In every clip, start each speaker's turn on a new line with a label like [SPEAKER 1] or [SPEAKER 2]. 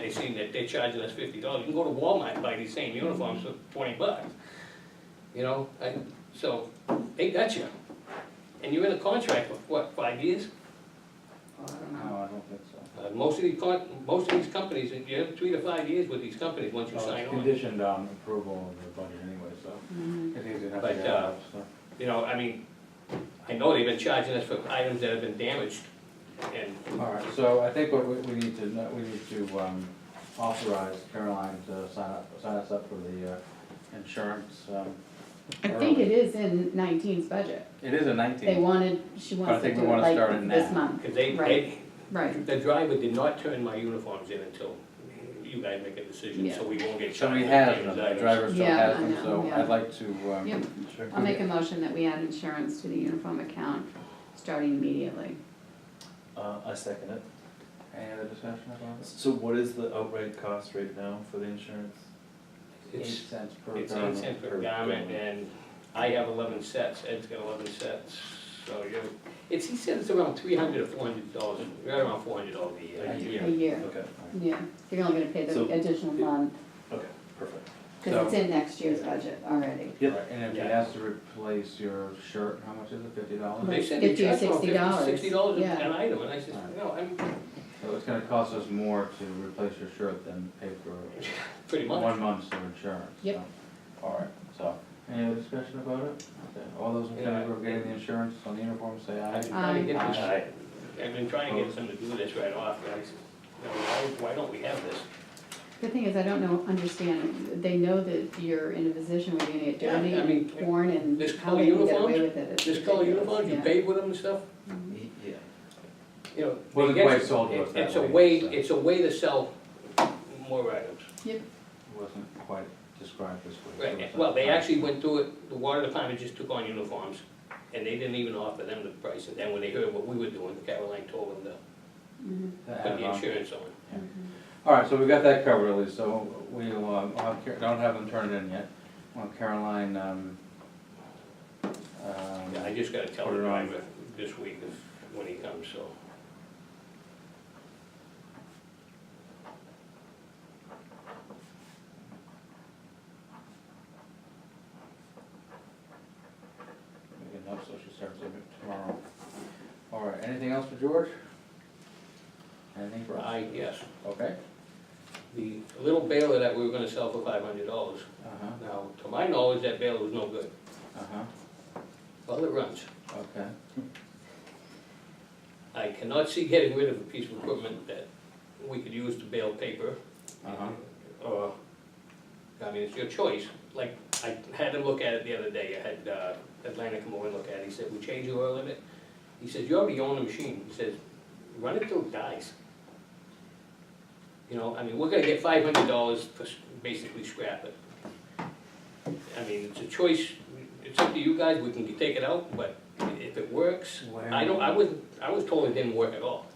[SPEAKER 1] they seen that they're charging us fifty dollars, you can go to Walmart and buy these same uniforms for twenty bucks. You know, I, so, they got you. And you're in a contract for, what, five years?
[SPEAKER 2] Oh, I don't know.
[SPEAKER 3] No, I don't think so.
[SPEAKER 1] Uh, most of these con, most of these companies, you have three to five years with these companies once you
[SPEAKER 3] Well,
[SPEAKER 1] sign
[SPEAKER 3] It's
[SPEAKER 1] on.
[SPEAKER 3] conditioned on approval of the budget anyway, so
[SPEAKER 2] Mm-hmm.
[SPEAKER 3] it's easy enough to
[SPEAKER 1] But,
[SPEAKER 3] get
[SPEAKER 1] uh,
[SPEAKER 3] out, so.
[SPEAKER 1] You know, I mean, I know they've been charging us for items that have been damaged, and
[SPEAKER 3] All right, so I think what we, we need to, know- we need to um, authorize Caroline to sign up, sign us up for the uh, insurance. um,
[SPEAKER 2] I think it
[SPEAKER 3] early.
[SPEAKER 2] is in nineteen's budget.
[SPEAKER 3] It is a
[SPEAKER 2] They
[SPEAKER 3] nineteen.
[SPEAKER 2] wanted, she
[SPEAKER 3] But I
[SPEAKER 2] wants to
[SPEAKER 3] think we
[SPEAKER 2] do it
[SPEAKER 3] wanna start it
[SPEAKER 2] like this
[SPEAKER 3] now.
[SPEAKER 2] month.
[SPEAKER 1] Because they,
[SPEAKER 2] Right,
[SPEAKER 1] they,
[SPEAKER 2] right.
[SPEAKER 1] the driver did not turn my uniforms in until you guys make a decision, so we won't get
[SPEAKER 3] So
[SPEAKER 1] charged.
[SPEAKER 3] we
[SPEAKER 1] with
[SPEAKER 3] have,
[SPEAKER 1] these
[SPEAKER 3] them, the
[SPEAKER 1] items.
[SPEAKER 3] driver still
[SPEAKER 2] Yeah,
[SPEAKER 3] has
[SPEAKER 2] I
[SPEAKER 3] them,
[SPEAKER 2] know,
[SPEAKER 3] so
[SPEAKER 2] yeah.
[SPEAKER 3] I'd like to. um,
[SPEAKER 2] Yep. I'll make a motion that we add insurance to the uniform account starting immediately.
[SPEAKER 4] Uh, I second it.
[SPEAKER 3] Any other discussion about this?
[SPEAKER 4] So what is the outright cost right now for the insurance?
[SPEAKER 3] Eight
[SPEAKER 1] It's,
[SPEAKER 3] cents per
[SPEAKER 1] it's
[SPEAKER 3] garment.
[SPEAKER 1] eight cents per
[SPEAKER 4] Per
[SPEAKER 1] garment,
[SPEAKER 4] garment.
[SPEAKER 1] and I have eleven sets, Ed's got eleven sets, so you're, it's, he said it's around three hundred or four hundred dollars, right around four hundred dollars a
[SPEAKER 4] A
[SPEAKER 1] year.
[SPEAKER 4] year.
[SPEAKER 2] A year,
[SPEAKER 4] Okay,
[SPEAKER 2] yeah. You're only gonna pay
[SPEAKER 4] So-
[SPEAKER 2] the additional month,
[SPEAKER 4] okay, perfect.
[SPEAKER 2] because it's in next year's budget already.
[SPEAKER 4] Yep.
[SPEAKER 3] Right, And if it
[SPEAKER 1] Yeah.
[SPEAKER 3] has to replace your shirt, how much is it, fifty
[SPEAKER 1] They
[SPEAKER 3] dollars?
[SPEAKER 1] said they
[SPEAKER 2] Fifty or
[SPEAKER 1] charged about
[SPEAKER 2] $60,
[SPEAKER 1] fifty, sixty dollars
[SPEAKER 2] yeah.
[SPEAKER 1] an item, and I said,
[SPEAKER 3] Right.
[SPEAKER 1] no, I'm,
[SPEAKER 3] So it's gonna cost us more to replace your shirt than pay for
[SPEAKER 1] pretty much.
[SPEAKER 3] one month's of insurance.
[SPEAKER 2] Yep.
[SPEAKER 3] so. All right, so, any other discussion about it? Okay, All those in
[SPEAKER 1] Yeah.
[SPEAKER 3] favor of getting the insurance on the uniform, say
[SPEAKER 1] I've been
[SPEAKER 3] aye.
[SPEAKER 1] trying to get this,
[SPEAKER 3] Aye.
[SPEAKER 1] I've been trying to get them to do this right off, and I said, no, why, why don't we have this?
[SPEAKER 2] The thing is, I don't know, understand, they know that you're in a position where you're gonna get
[SPEAKER 1] Yeah, I
[SPEAKER 2] dirty
[SPEAKER 1] mean,
[SPEAKER 2] and worn and
[SPEAKER 1] this
[SPEAKER 2] how
[SPEAKER 1] color
[SPEAKER 2] they can get
[SPEAKER 1] uniforms-
[SPEAKER 2] away with it. It's
[SPEAKER 1] This color
[SPEAKER 2] ridiculous,
[SPEAKER 1] uniforms, you
[SPEAKER 2] yeah.
[SPEAKER 1] paid with them and stuff,
[SPEAKER 4] Yeah.
[SPEAKER 1] you know.
[SPEAKER 3] Well,
[SPEAKER 1] they
[SPEAKER 3] the
[SPEAKER 1] get
[SPEAKER 3] way
[SPEAKER 1] you-
[SPEAKER 3] it's sold was
[SPEAKER 1] it-
[SPEAKER 3] that
[SPEAKER 1] It's a way,
[SPEAKER 3] way, so.
[SPEAKER 1] it's a way to sell more items.
[SPEAKER 3] Wasn't quite described this way. so
[SPEAKER 1] Right,
[SPEAKER 3] it's
[SPEAKER 1] well,
[SPEAKER 3] not-
[SPEAKER 1] they actually went through it, the water department just took on uniforms, and they didn't even offer them the price, and then when they heard what we were doing, Caroline told them
[SPEAKER 2] Mhm.
[SPEAKER 3] That
[SPEAKER 1] to put
[SPEAKER 3] added
[SPEAKER 1] the
[SPEAKER 3] on.
[SPEAKER 1] insurance on.
[SPEAKER 3] All right, so we got that covered at least, so we'll, um, I'll have Car- don't have them turn it in yet. Well, Caroline, um, um,
[SPEAKER 1] Yeah, I just gotta tell the
[SPEAKER 3] Put it on.
[SPEAKER 1] driver this week if, when he comes, so.
[SPEAKER 3] we can help, so she starts it tomorrow. All right, anything else for George? Anything for us?
[SPEAKER 1] I, yes,
[SPEAKER 3] Okay?
[SPEAKER 1] the little baler that we were gonna sell for five hundred dollars,
[SPEAKER 3] Uh-huh,
[SPEAKER 1] now, to my knowledge, that baler was no good,
[SPEAKER 3] uh-huh,
[SPEAKER 1] well, it runs.
[SPEAKER 3] okay.
[SPEAKER 1] I cannot see getting rid of a piece of equipment that we could use to bale paper.
[SPEAKER 3] Uh-huh.
[SPEAKER 1] Or, Uh, I mean, it's your choice, like, I had him look at it the other day, I had uh, Atlanta come over and look at it, he said, we change the oil in it. He says, you already own the machine, he says, run it till it dies. You know, I mean, we're gonna get five hundred dollars for s- basically scrap it. I mean, it's a choice, it's up to you guys, we can take it out, but if it works,
[SPEAKER 3] Where-
[SPEAKER 1] I don't, I wasn't, I was told it didn't work at all.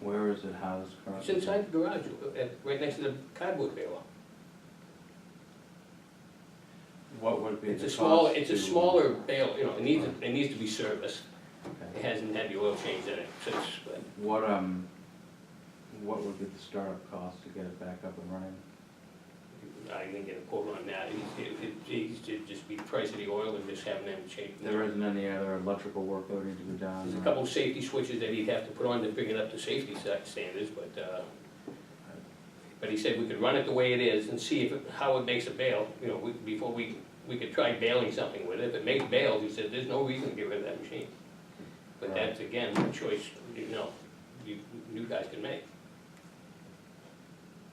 [SPEAKER 3] Where is it housed
[SPEAKER 1] It's
[SPEAKER 3] currently?
[SPEAKER 1] inside the garage, uh, uh, right next to the cardboard baler.
[SPEAKER 3] What would be the
[SPEAKER 1] It's
[SPEAKER 3] cost?
[SPEAKER 1] a small, it's a
[SPEAKER 3] to-
[SPEAKER 1] smaller bale, you know, it needs, it needs to be serviced. It
[SPEAKER 3] Okay.
[SPEAKER 1] hasn't had the oil change in it since, but
[SPEAKER 3] What, um, what would be the startup cost to get it back up and running?
[SPEAKER 1] I didn't get a quote on that. It- it- it- It's, it'd just be the price of the oil and just having them change.
[SPEAKER 3] There isn't any other electrical work that would need to be done?
[SPEAKER 1] There's a
[SPEAKER 3] or-
[SPEAKER 1] couple of safety switches that he'd have to put on to bring it up to safety sta- standards, but, uh, but he said we could run it the way it is and see if, it- how it makes a bale, you know, we- before we, we could try baling something with it. If it makes bales, he said, there's no reason to get rid of that machine. But
[SPEAKER 3] Right.
[SPEAKER 1] that's, again, a choice, you know, you, you guys can make.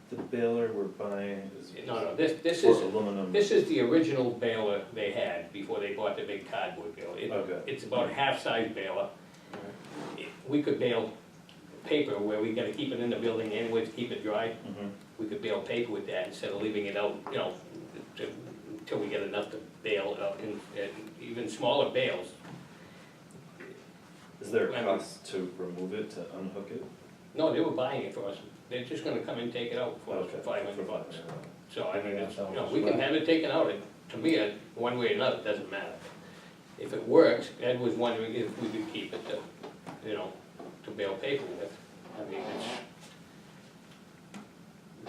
[SPEAKER 4] The baler we're buying is.
[SPEAKER 1] No, no, this, this
[SPEAKER 4] For
[SPEAKER 1] is,
[SPEAKER 4] aluminum.
[SPEAKER 1] this is the original baler they had before they bought the big cardboard baler. It-
[SPEAKER 4] Okay.
[SPEAKER 1] It's about a half-size baler. It- We could bale paper where we gotta keep it in the building anyway to keep it dry.
[SPEAKER 4] Mhm.
[SPEAKER 1] We could bale paper with that instead of leaving it out, you know, to- until we get enough to bale it out and, and uh, even smaller bales.
[SPEAKER 4] Is there
[SPEAKER 1] I
[SPEAKER 4] a
[SPEAKER 1] mean-
[SPEAKER 4] cost to remove it, to unhook it?
[SPEAKER 1] No, they were buying it for us. They're just gonna come and take it out for us for
[SPEAKER 4] Okay.
[SPEAKER 1] five hundred bucks. So I mean, it's, you know,
[SPEAKER 3] Yeah.
[SPEAKER 1] we can have it taken out, It- to me, it- one way or another, it doesn't matter. If it works, Ed was wondering if we could keep it to, you know, to bail paper with. I mean, it's,